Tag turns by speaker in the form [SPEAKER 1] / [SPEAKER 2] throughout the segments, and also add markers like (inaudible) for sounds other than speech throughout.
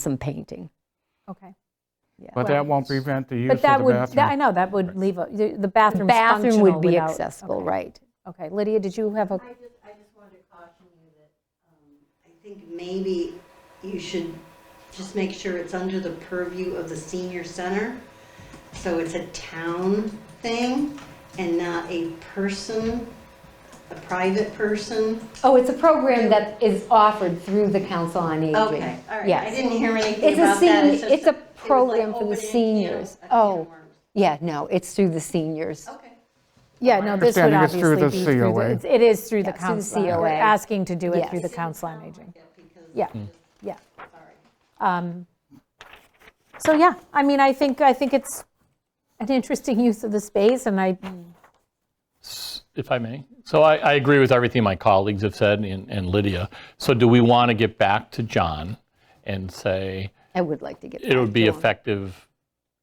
[SPEAKER 1] some painting.
[SPEAKER 2] Okay.
[SPEAKER 3] But that won't prevent the use
[SPEAKER 2] But
[SPEAKER 3] of the
[SPEAKER 2] that would, that- I
[SPEAKER 3] bathroom.
[SPEAKER 2] know, that would leave, a- the the bathroom's
[SPEAKER 1] Bathroom
[SPEAKER 2] functional
[SPEAKER 1] would be
[SPEAKER 2] without-
[SPEAKER 1] accessible,
[SPEAKER 2] okay.
[SPEAKER 1] right.
[SPEAKER 2] Okay, Lydia, did you have a,
[SPEAKER 4] I just, I just wanted to caution you that, um, I think maybe you should just make sure it's under the purview of the senior center. So it's a town thing and not a person, a private person.
[SPEAKER 5] Oh, it's a program that is offered through the Council on Aging.
[SPEAKER 4] Okay, all right. I
[SPEAKER 5] Yes.
[SPEAKER 4] didn't hear anything
[SPEAKER 5] It's a
[SPEAKER 4] about that.
[SPEAKER 5] senior,
[SPEAKER 4] just-
[SPEAKER 5] it's a
[SPEAKER 4] it was like
[SPEAKER 5] program for the
[SPEAKER 4] opening a can-
[SPEAKER 5] seniors.
[SPEAKER 4] a can of
[SPEAKER 5] Oh,
[SPEAKER 4] worms.
[SPEAKER 5] yeah, no, it's through the seniors.
[SPEAKER 4] Okay.
[SPEAKER 2] yeah, no, this would
[SPEAKER 3] understanding it's
[SPEAKER 2] obviously
[SPEAKER 3] through
[SPEAKER 2] be
[SPEAKER 3] the
[SPEAKER 2] through
[SPEAKER 3] COA.
[SPEAKER 2] the, it's- it is through the
[SPEAKER 5] Yeah, through the
[SPEAKER 2] council. We're
[SPEAKER 5] COA.
[SPEAKER 2] asking to do it through the
[SPEAKER 5] Yes.
[SPEAKER 2] council on aging.
[SPEAKER 4] Yeah, because,
[SPEAKER 2] Yeah,
[SPEAKER 3] Hmm.
[SPEAKER 2] yeah.
[SPEAKER 4] sorry.
[SPEAKER 2] Um, So, yeah, I mean, I think, I think it's an interesting use of the space, and I,
[SPEAKER 6] if I may. So I, I agree with everything my colleagues have said and, and Lydia. So do we want to get back to John and say
[SPEAKER 1] I would like to get
[SPEAKER 6] it would
[SPEAKER 1] back
[SPEAKER 6] be
[SPEAKER 1] to 'em.
[SPEAKER 6] effective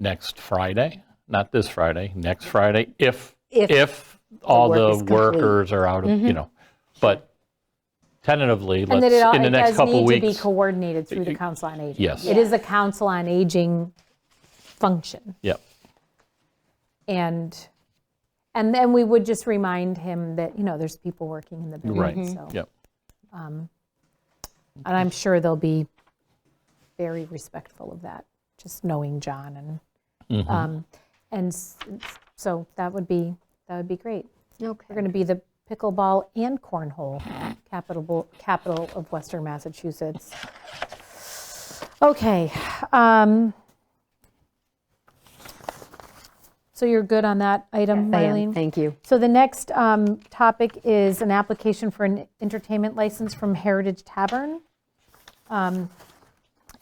[SPEAKER 6] next Friday, not this Friday, next Friday, if,
[SPEAKER 1] If
[SPEAKER 6] if all
[SPEAKER 1] work is
[SPEAKER 6] the
[SPEAKER 1] complete.
[SPEAKER 6] workers are out of, you know, but tentatively,
[SPEAKER 2] Mm-hmm. and that
[SPEAKER 6] let's,
[SPEAKER 2] it all,
[SPEAKER 6] in the
[SPEAKER 2] it
[SPEAKER 6] next
[SPEAKER 2] does
[SPEAKER 6] couple
[SPEAKER 2] need to be
[SPEAKER 6] weeks.
[SPEAKER 2] coordinated through the council on aging.
[SPEAKER 6] Yes.
[SPEAKER 2] It is a council on aging function.
[SPEAKER 6] Yep.
[SPEAKER 2] And, and then we would just remind him that, you know, there's people working in the
[SPEAKER 6] Right. Mm-hmm.
[SPEAKER 2] building, so.
[SPEAKER 6] Yep.
[SPEAKER 2] And I'm sure they'll be very respectful of that, just knowing John and, um, and s- so that would be, that would be great. We're
[SPEAKER 1] Okay.
[SPEAKER 2] going to be the pickleball and cornhole capital, capital of Western Massachusetts. Okay. um, So you're good on that item,
[SPEAKER 1] I am,
[SPEAKER 2] Marlene?
[SPEAKER 1] Thank you.
[SPEAKER 2] So the next um, topic is an application for an entertainment license from Heritage Tavern. Um,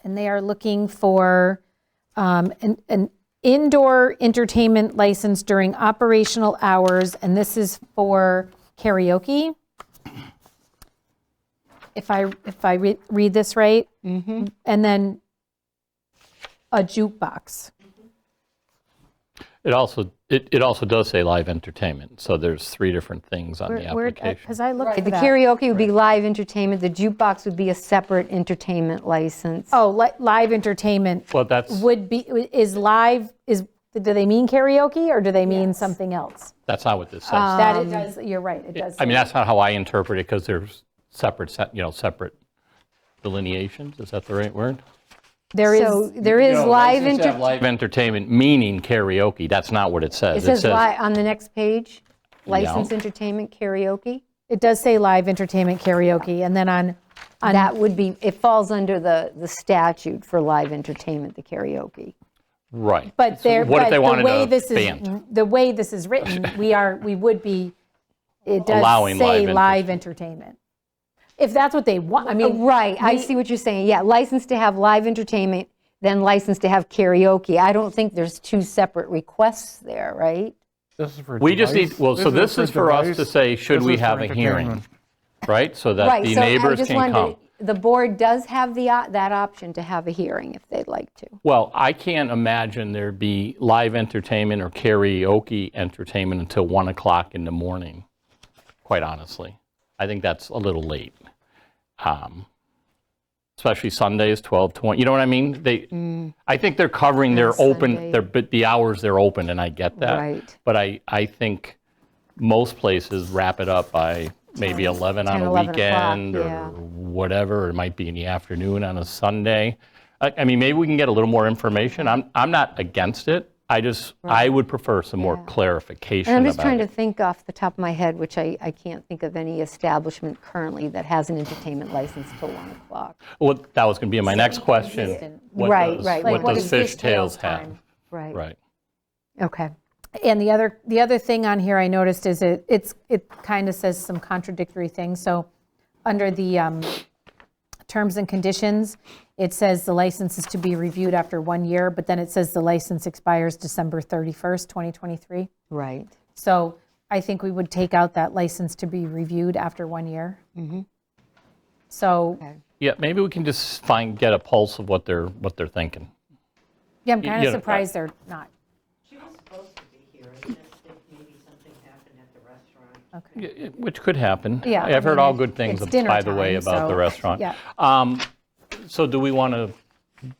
[SPEAKER 2] And they are looking for um, an an indoor entertainment license during operational hours, and this is for karaoke. If I, if I re- read this right?
[SPEAKER 5] Mm-hmm.
[SPEAKER 2] And then a jukebox.
[SPEAKER 6] It also, it, it also does say live entertainment, so there's three different things on the
[SPEAKER 2] uh,
[SPEAKER 6] application.
[SPEAKER 2] Because I looked for
[SPEAKER 5] The
[SPEAKER 2] that.
[SPEAKER 5] karaoke would be live entertainment, the jukebox would be a separate entertainment license.
[SPEAKER 2] Oh, li- live entertainment.
[SPEAKER 6] Well, that's,
[SPEAKER 2] would be, is live, is, do they mean karaoke or do they mean something else?
[SPEAKER 6] that's not what this says.
[SPEAKER 2] That it does, you're right, it does.
[SPEAKER 6] Um, I mean, that's not how I interpret it, because there's separate, se- you know, separate delineations, is that the right word?
[SPEAKER 2] There
[SPEAKER 5] So
[SPEAKER 2] is,
[SPEAKER 5] there is live entertainment.
[SPEAKER 6] Live entertainment, meaning karaoke, that's not what it says.
[SPEAKER 5] It says li- on the next page, licensed
[SPEAKER 6] Yeah.
[SPEAKER 5] entertainment karaoke.
[SPEAKER 2] it does say live entertainment karaoke, and then on,
[SPEAKER 5] That would be, it falls under the, the statute for live entertainment, the karaoke.
[SPEAKER 6] Right.
[SPEAKER 2] but
[SPEAKER 6] So
[SPEAKER 2] there,
[SPEAKER 6] What if
[SPEAKER 2] but
[SPEAKER 6] they
[SPEAKER 2] the
[SPEAKER 6] wanted
[SPEAKER 2] way
[SPEAKER 6] a
[SPEAKER 2] this is,
[SPEAKER 6] band?
[SPEAKER 2] the way this is
[SPEAKER 6] (laughs)
[SPEAKER 2] written, we are, we would be, it does
[SPEAKER 6] Allowing
[SPEAKER 2] say
[SPEAKER 6] live
[SPEAKER 2] live entertainment. If that's what they want, I mean.
[SPEAKER 5] Right, I see what you're saying, yeah, license to have live entertainment, then license to have karaoke. I don't think there's two separate requests there, right?
[SPEAKER 3] This is for
[SPEAKER 6] We just
[SPEAKER 3] device-
[SPEAKER 6] need, well, so this is for us to
[SPEAKER 3] device.
[SPEAKER 6] say, should
[SPEAKER 3] This
[SPEAKER 6] we
[SPEAKER 3] is for
[SPEAKER 6] have a hearing?
[SPEAKER 3] entertainment.
[SPEAKER 6] Right, so that
[SPEAKER 5] Right.
[SPEAKER 6] the
[SPEAKER 5] so I
[SPEAKER 6] neighbors
[SPEAKER 5] just
[SPEAKER 6] can
[SPEAKER 5] wondered,
[SPEAKER 6] come.
[SPEAKER 5] The board does have the, o- that option to have a hearing if they'd like to.
[SPEAKER 6] Well, I can't imagine there'd be live entertainment or karaoke entertainment until 1 o'clock in the morning, quite honestly. I think that's a little late. Um, Especially Sundays, 12 to 1, you know what I mean? They, I think they're covering their open,
[SPEAKER 5] Mm. Sunday.
[SPEAKER 6] their, but the hours they're open, and I get that.
[SPEAKER 5] Right.
[SPEAKER 6] But I, I think most places wrap it up by maybe 11 on
[SPEAKER 5] 10,
[SPEAKER 6] a
[SPEAKER 5] 11 o'clock,
[SPEAKER 6] weekend
[SPEAKER 5] yeah.
[SPEAKER 6] or whatever. It might be in the afternoon on a Sunday. I, I mean, maybe we can get a little more information. I'm, I'm not against it. I just, I would prefer some more clarification
[SPEAKER 5] And I'm just
[SPEAKER 6] about
[SPEAKER 5] trying to
[SPEAKER 6] it.
[SPEAKER 5] think off the top of my head, which I, I can't think of any establishment currently that has an entertainment license till 1 o'clock.
[SPEAKER 6] Well, that was going to be my next question. What
[SPEAKER 5] Right,
[SPEAKER 6] does-
[SPEAKER 5] right,
[SPEAKER 6] What
[SPEAKER 5] right.
[SPEAKER 2] What
[SPEAKER 6] does
[SPEAKER 2] is Fish Tales
[SPEAKER 6] Fishtails have?
[SPEAKER 2] time?
[SPEAKER 5] Right,
[SPEAKER 6] Right.
[SPEAKER 5] okay.
[SPEAKER 2] And the other, the other thing on here I noticed is it, it's, it kind of says some contradictory things. So under the um, terms and conditions, it says the license is to be reviewed after one year, but then it says the license expires December 31st, 2023.
[SPEAKER 5] Right.
[SPEAKER 2] So I think we would take out that license to be reviewed after one year. So,
[SPEAKER 6] Yeah, maybe we can just find, get a pulse of what they're, what they're thinking.
[SPEAKER 2] yeah, I'm
[SPEAKER 6] You-
[SPEAKER 2] kind
[SPEAKER 6] you
[SPEAKER 2] of
[SPEAKER 6] know, uh,
[SPEAKER 2] surprised they're not.
[SPEAKER 4] She was supposed to be here, it's just if maybe something happened at the restaurant.
[SPEAKER 6] Yeah, yeah, Which could happen.
[SPEAKER 2] Yeah, I
[SPEAKER 6] I've
[SPEAKER 2] mean,
[SPEAKER 6] heard all
[SPEAKER 2] it-
[SPEAKER 6] good things,
[SPEAKER 2] it's dinner
[SPEAKER 6] by the way,
[SPEAKER 2] time,
[SPEAKER 6] about the
[SPEAKER 2] so,
[SPEAKER 6] restaurant.
[SPEAKER 2] yeah.
[SPEAKER 6] Um, So do we want to